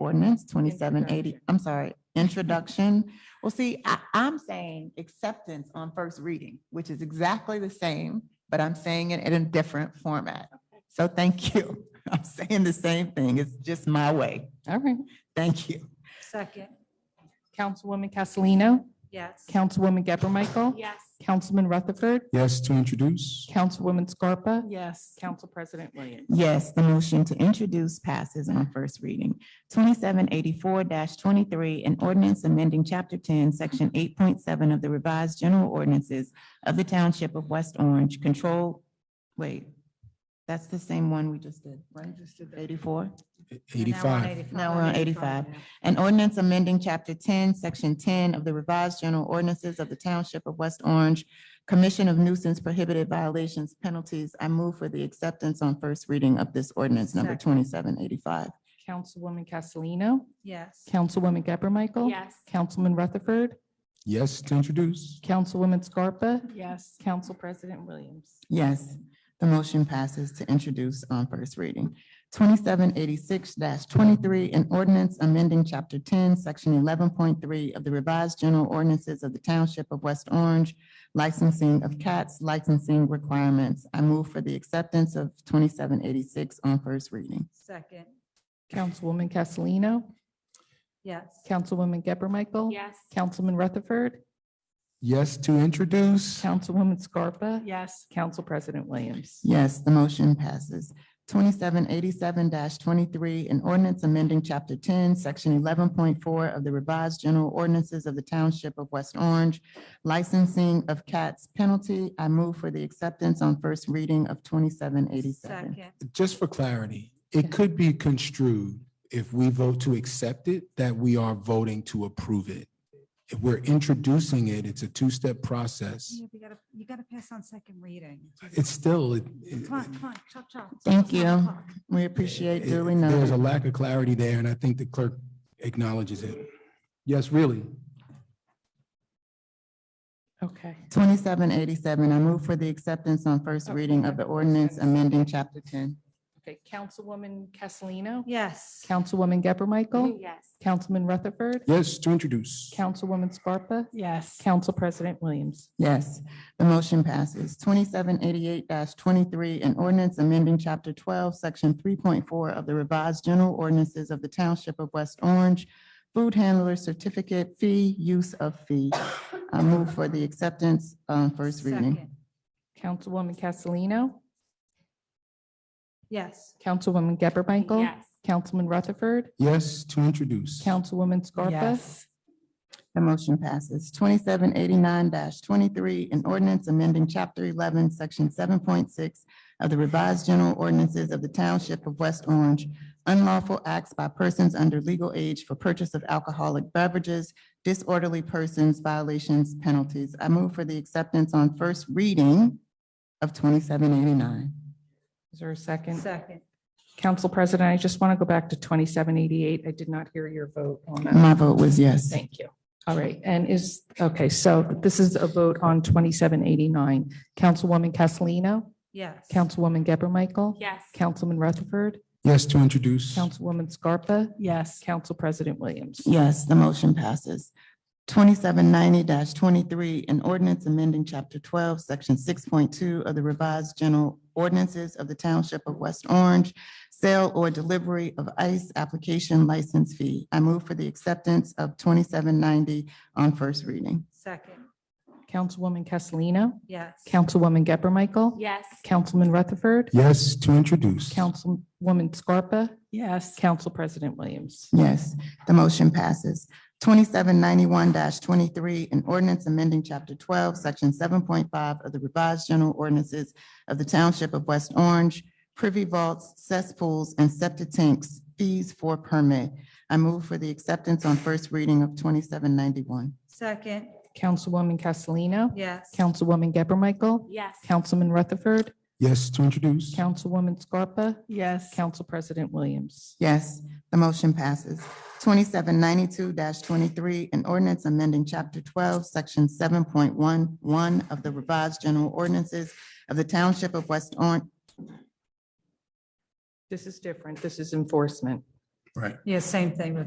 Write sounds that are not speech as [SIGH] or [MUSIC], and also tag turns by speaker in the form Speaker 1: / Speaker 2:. Speaker 1: ordinance twenty-seven eighty, I'm sorry, introduction. Well, see, I, I'm saying acceptance on first reading, which is exactly the same, but I'm saying it in a different format. So thank you. [LAUGHS] I'm saying the same thing. It's just my way.
Speaker 2: All right.
Speaker 1: Thank you.
Speaker 3: Second,
Speaker 2: Councilwoman Castellino,
Speaker 3: yes.
Speaker 2: Councilwoman Gabor Michael,
Speaker 3: Yes.
Speaker 2: Councilman Rutherford,
Speaker 4: Yes, to introduce.
Speaker 2: Councilwoman Scarpa,
Speaker 3: Yes.
Speaker 2: Council President Williams.
Speaker 1: Yes, the motion to introduce passes on first reading. Twenty-seven eighty-four twenty-three, an ordinance amending chapter ten, section eight point seven of the revised general ordinances of the township of West Orange, control, wait, that's the same one we just did, right? Eighty-four?
Speaker 4: Eighty-five.
Speaker 1: Now we're on 85. An ordinance amending chapter ten, section ten of the revised general ordinances of the township of West Orange, commission of nuisance prohibited violations penalties. I move for the acceptance on first reading of this ordinance number twenty-seven eighty-five.
Speaker 2: Councilwoman Castellino,
Speaker 3: Yes.
Speaker 2: Councilwoman Gabor Michael,
Speaker 3: Yes.
Speaker 2: Councilman Rutherford,
Speaker 4: Yes, to introduce.
Speaker 2: Councilwoman Scarpa,
Speaker 3: Yes.
Speaker 2: Council President Williams.
Speaker 1: Yes, the motion passes to introduce on first reading. Twenty-seven eighty-six twenty-three, an ordinance amending chapter ten, section eleven point three of the revised general ordinances of the township of West Orange, licensing of cats, licensing requirements. I move for the acceptance of twenty-seven eighty-six on first reading.
Speaker 3: Second,
Speaker 2: Councilwoman Castellino,
Speaker 3: yes.
Speaker 2: Councilwoman Gabor Michael,
Speaker 3: Yes.
Speaker 2: Councilman Rutherford,
Speaker 4: Yes, to introduce.
Speaker 2: Councilwoman Scarpa,
Speaker 3: Yes.
Speaker 2: Council President Williams.
Speaker 1: Yes, the motion passes. Twenty-seven eighty-seven twenty-three, an ordinance amending chapter ten, section eleven point four of the revised general ordinances of the township of West Orange, licensing of cats penalty. I move for the acceptance on first reading of twenty-seven eighty-seven.
Speaker 3: Second,
Speaker 4: Just for clarity, it could be construed, if we vote to accept it, that we are voting to approve it. If we're introducing it, it's a two-step process.
Speaker 5: Yeah, but you gotta, you gotta pass on second reading.
Speaker 4: It's still. it- it-
Speaker 5: Come on, come on, chop, chop.
Speaker 1: Thank
Speaker 5: It's nine
Speaker 1: you.
Speaker 5: o'clock.
Speaker 1: We appreciate
Speaker 4: it-
Speaker 1: duly
Speaker 4: There's a
Speaker 1: noted.
Speaker 4: lack of clarity there, and I think the clerk acknowledges it. Yes, really.
Speaker 2: Okay.
Speaker 1: Twenty-seven eighty-seven, I move for the acceptance on first reading of the ordinance amending chapter ten.
Speaker 2: Okay, Councilwoman Castellino,
Speaker 3: yes.
Speaker 2: Councilwoman Gabor Michael,
Speaker 3: Yes.
Speaker 2: Councilman Rutherford,
Speaker 4: Yes, to introduce.
Speaker 2: Councilwoman Scarpa,
Speaker 3: Yes.
Speaker 2: Council President Williams.
Speaker 1: Yes, the motion passes. Twenty-seven eighty-eight twenty-three, an ordinance amending chapter twelve, section three point four of the revised general ordinances of the township of West Orange, food handler certificate fee, use of fee. I move for the acceptance on first reading.
Speaker 3: Second,
Speaker 2: Councilwoman Castellino,
Speaker 3: yes.
Speaker 2: Councilwoman Gabor Michael, Councilman Rutherford,
Speaker 4: Yes, to introduce.
Speaker 2: Councilwoman Scarpa,
Speaker 1: The motion passes. Twenty-seven eighty-nine twenty-three, an ordinance amending chapter eleven, section seven point six of the revised general ordinances of the township of West Orange, unlawful acts by persons under legal age for purchase of alcoholic beverages, disorderly persons, violations, penalties. I move for the acceptance on first reading of twenty-seven eighty-nine.
Speaker 2: Is there a second?
Speaker 3: Second,
Speaker 2: Council President, I just want to go back to 2788. I did not hear your vote on that.
Speaker 1: My vote was yes.
Speaker 2: Thank you. All right, and is, okay, so this is a vote on 2789. Councilwoman Castellino,
Speaker 3: yes.
Speaker 2: Councilwoman Gabor Michael,
Speaker 3: Yes.
Speaker 2: Councilman Rutherford,
Speaker 4: Yes, to introduce.
Speaker 2: Councilwoman Scarpa,
Speaker 3: Yes.
Speaker 2: Council President Williams.
Speaker 1: Yes, the motion passes. Twenty-seven ninety twenty-three, an ordinance amending chapter twelve, section six point two of the revised general ordinances of the township of West Orange, sale or delivery of ICE application license fee. I move for the acceptance of twenty-seven ninety on first reading.
Speaker 3: Second,
Speaker 2: Councilwoman Castellino,
Speaker 3: yes.
Speaker 2: Councilwoman Gabor Michael,
Speaker 3: Yes.
Speaker 2: Councilman Rutherford,
Speaker 4: Yes, to introduce.
Speaker 2: Councilwoman Scarpa,
Speaker 3: Yes.
Speaker 2: Council President Williams.
Speaker 1: Yes, the motion passes. Twenty-seven ninety-one twenty-three, an ordinance amending chapter twelve, section seven point five of the revised general ordinances of the township of West Orange, privy vaults, cesspools, and septic tanks, fees for permit. I move for the acceptance on first reading of twenty-seven ninety-one.
Speaker 3: Second,
Speaker 2: Councilwoman Castellino,
Speaker 3: yes.
Speaker 2: Councilwoman Gabor Michael,
Speaker 3: Yes.
Speaker 2: Councilman Rutherford,
Speaker 4: Yes, to introduce.
Speaker 2: Councilwoman Scarpa,
Speaker 3: Yes.
Speaker 2: Council President Williams.
Speaker 1: Yes, the motion passes. Twenty-seven ninety-two twenty-three, an ordinance amending chapter twelve, section seven point one one of the revised general ordinances of the township of West Orange,
Speaker 2: This is different. This is enforcement.
Speaker 4: Right.
Speaker 3: Yeah, same thing with